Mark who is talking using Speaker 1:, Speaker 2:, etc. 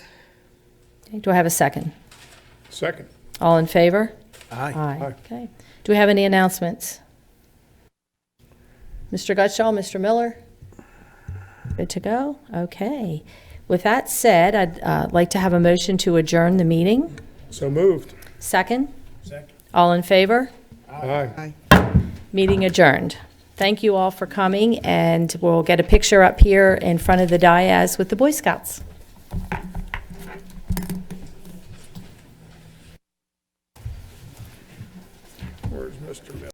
Speaker 1: Okay, Do I have a second?
Speaker 2: Second.
Speaker 1: All in favor?
Speaker 2: Aye.
Speaker 1: Okay. Do we have any announcements? Mr. Gutschall, Mr. Miller? Good to go? Okay. With that said, I'd uh, like to have a motion to adjourn the meeting.
Speaker 2: So moved.
Speaker 1: Second?
Speaker 2: Second.
Speaker 1: All in favor?
Speaker 2: Aye.
Speaker 1: Meeting adjourned. Thank you all for coming, and we'll get a picture up here in front of the dais with the Boy Scouts.